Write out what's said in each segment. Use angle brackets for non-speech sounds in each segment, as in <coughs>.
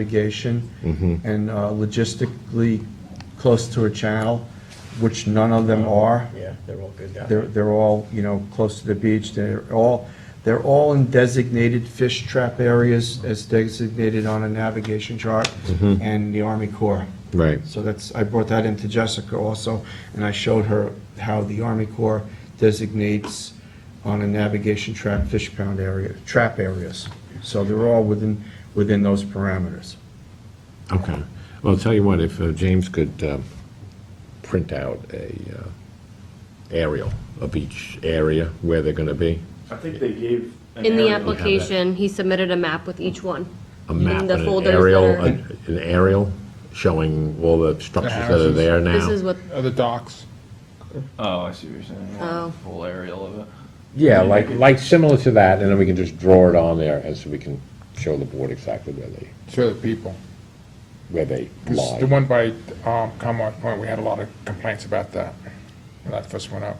navigation and uh, logistically close to a channel, which none of them are. Yeah, they're all good down They're, there. they're all, you know, close to the beach. They're all, they're all in designated fish trap areas as designated on a navigation chart and the Army Corps. Right. So that's, I brought that into Jessica also, and I showed her how the Army Corps designates on a navigation trap fish pound area, trap areas. So they're all within, within those parameters. Okay. Well, I'll tell you what, if uh, James could um, print out a uh, aerial of each area where they're going to be, I think they gave. an In the area. application, he submitted a map with each one. a map, and In the an folders aerial, that are- an an aerial showing all the structures that are there now. This is what, Uh, the docks. Oh, I see what you're saying. Yeah, Oh. Full aerial of it. Yeah, like, like similar to that, and then we can just draw it on there, and so we can show the board exactly where they, Show the people. where they 'Cause the lie. one by um, Commonwealth Point, we had a lot of complaints about that when that first went up.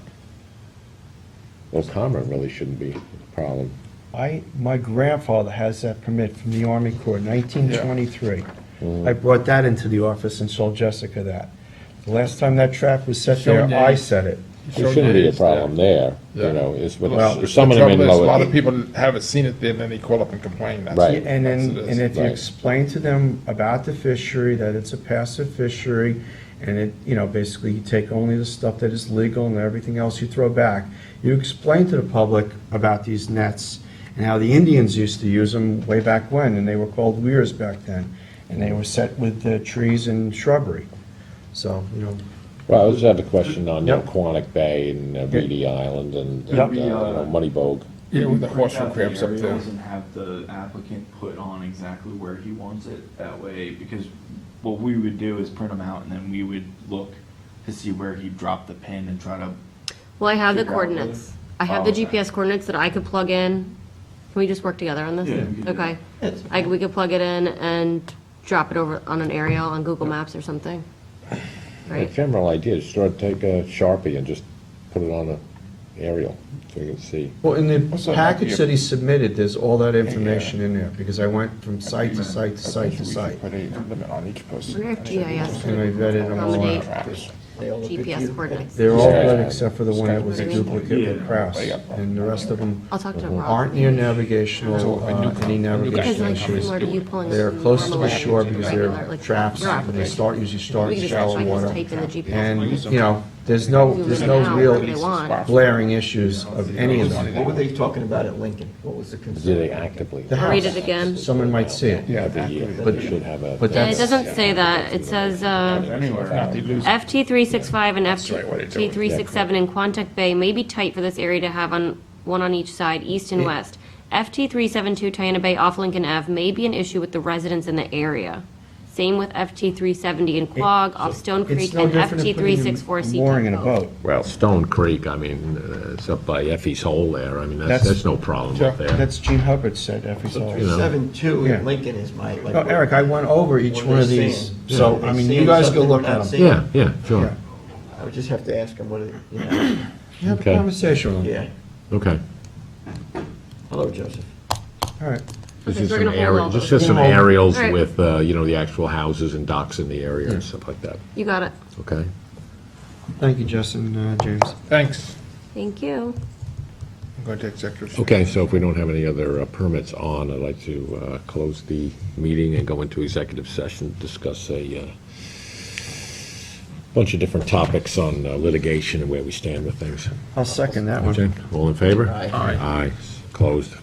Well, Commerce really shouldn't be a problem. I, my grandfather has that permit from the Army Corps, 1923. I brought that into the office and sold Jessica that. The last time that trap was set there, Sure. I set it. There shouldn't be a problem there, you Yeah. know, it's with, Well, some the of them in trouble is, a lot lower. of people haven't seen it there, and then they call up and complain. That's- Right. And then, that's- and if you Right. explain to them about the fishery, that it's a passive fishery, and it, you know, basically you take only the stuff that is legal and everything else you throw back. You explain to the public about these nets and how the Indians used to use them way back when, and they were called weirs back then. And they were set with uh, trees and shrubbery. So, you know, Well, I just have a question on Yep. Quonic Bay and uh, Reedy Island and, and, uh, Yep. you know, Moneybog. Yeah, with the Print horse out and crabs up there. aerials And have the applicant put on exactly where he wants it, that way, because what we would do is print them out, and then we would look to see where he dropped the pin and try to, well, I have the Figure out whether- coordinates. I have the Oh, okay. GPS coordinates that I could plug in. Can we just work together on this? Yeah, we can do Okay. I, we could plug it in and drop it over on an aerial on Google Maps or something. A Right? general idea, just sort of take a Sharpie and just put it on a aerial, so you can see. Well, in Also, the it might be package a- that he submitted, there's all that information in there, because I went from site to site to site to We site. Put a limit on each person. We have GIS. And I vetted them all Accommodate out. GPS coordinates. They're all Yeah. good except for the one that was a duplicate with Kraus, and the rest of them I'll talk to Rob. aren't near navigational, uh, any Because navigational like similar issues. to you pulling. They're up from close to the Marmalade shore to because regular, they're like, traps, rock, and they right? start, usually start We in could just shallow actually just water. Type in the GPS. And, you know, there's no, coordinates. there's no Zoom in and out where they real want. glaring issues of any of them. What were they talking about at Lincoln? What was the Do they concern? actively? The I'll read house. it again. Someone might see it. Yeah, Every year, But- they should have a. but And that's- it doesn't say that. It says, uh, Anyway, if not, they lose. FT three six five and right, what it's FT doing. three six seven in Quantuck Bay may be tight for this area to have on, one on each side, east and west. FT three seven two Tiana Bay off Lincoln Ave may be an issue with the residents in the area. Same with FT three seventy in Quogue, off Stone Creek, It's no and different than FT three six four putting a CT. mooring in a Cove. boat. Well, Stone Creek, I mean, uh, it's up by Effie's Hole there, I mean, that's, That's- that's no problem up Sure. there. That's Gene Hubbard said E every so you know. Seven two Yeah. at Lincoln is my, like. No, Eric, I went over each What one of they're these, saying. so, Yeah. I mean, They're you guys saying go look something at we're them. not Yeah, yeah, sure, I would just have to ask him what it, <coughs> you know, You Have a Okay. conversation with them. yeah. okay. Hello, Joseph. All right. This Okay, is so we're some gonna hold aerial, all just those. just some Hold. aerials All right. with, uh, you know, the actual houses and docks in the area and stuff like that, You got it. okay? Thank you, Justin, uh, James. Thanks. Thank you. I'm going to executive. session. Okay, so if we don't have any other uh, permits on, I'd like to uh, close the meeting and go into executive session, discuss a uh, bunch of different topics on uh, litigation and where we stand with things. I'll second that one. Okay, All in favor? Aye. Aye, closed.